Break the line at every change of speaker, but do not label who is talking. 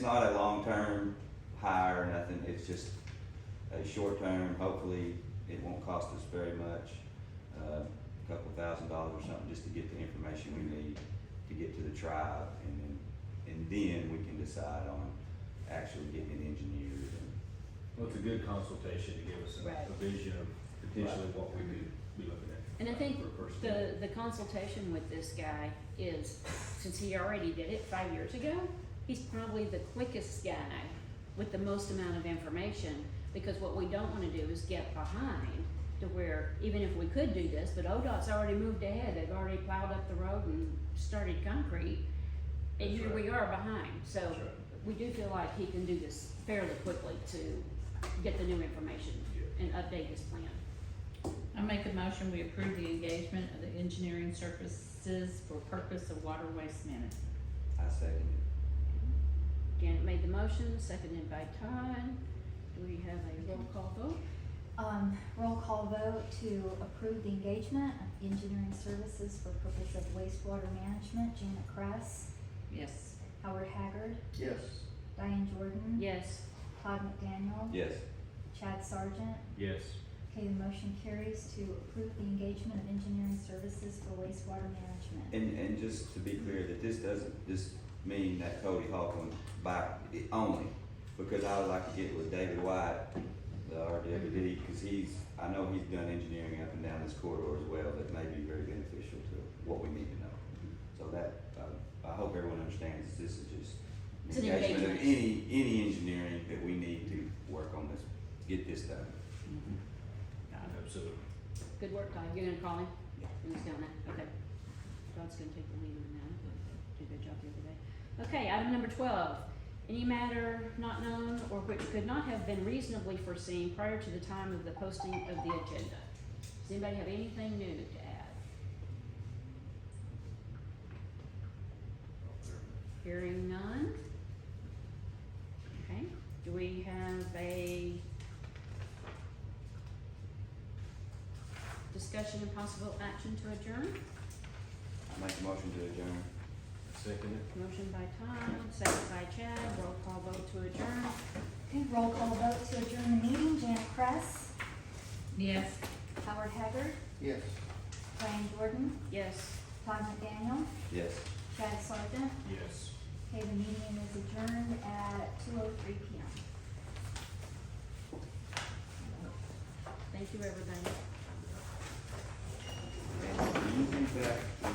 not a long-term hire or nothing, it's just a short-term, hopefully it won't cost us very much. uh, A couple thousand dollars or something, just to get the information we need to get to the tribe and then, and then we can decide on actually getting it engineered and
Well, it's a good consultation to give us a,
Right.
a vision of potentially what we would be looking at.
And I think
for a person.
The, the consultation with this guy is, since he already did it five years ago, he's probably the quickest guy with the most amount of information, because what we don't wanna do is get behind to where, even if we could do this, but ODOT's already moved ahead, they've already plowed up the road and started concrete, and
That's
here we
right.
are behind, so
That's right.
we do feel like he can do this fairly quickly to get the new information
Yeah.
and update his plan.
I make a motion, we approve the engagement of the engineering services for purpose of water waste management.
I second it.
Janet made the motion, seconded by Todd. Do we have a roll call vote?
Um, roll call vote to approve the engagement of engineering services for purpose of wastewater management, Janet Kress,
Yes.
Howard Haggard,
yes,
Diane Jordan.
Yes,
Todd McDaniel.
Yes,
Chad Sargent.
Yes,
Okay, the motion carries to approve the engagement of engineering services for wastewater management.
and, and just to be clear, that this doesn't, just mean that Cody Hawthorne by, it only, because I would like to get with David White, the RWD,
Mm-hmm.
because he's, I know he's done engineering up and down this corridor as well, that may be very beneficial to what we need to know. So that, uh, I hope everyone understands, this is
It's
just
an
engagement of
engagement.
any, any engineering that we need to work on this, get this done.
Got it.
absolutely.
good work, Todd. You're gonna call him?
Yeah.
He was down there, okay. Todd's gonna take the lead on that. Did a good job the other day. Okay, item number twelve. Any matter not known or which could not have been reasonably foreseen prior to the time of the posting of the agenda. Does anybody have anything new to add? Hearing none? Okay, do we have a discussion and possible action to adjourn?
I make a motion to adjourn.
Second it.
Motion by Todd, second by Chad, roll call vote to adjourn.
Okay, roll call vote to adjourn the meeting, Janet Kress,
Yes.
Howard Haggard,
yes.
Diane Jordan,
Yes.
Todd McDaniel,
Yes.
Chad Sargent.
Yes.
Okay, the meeting is adjourned at two oh three P M.
Thank you, everybody.
Do you think that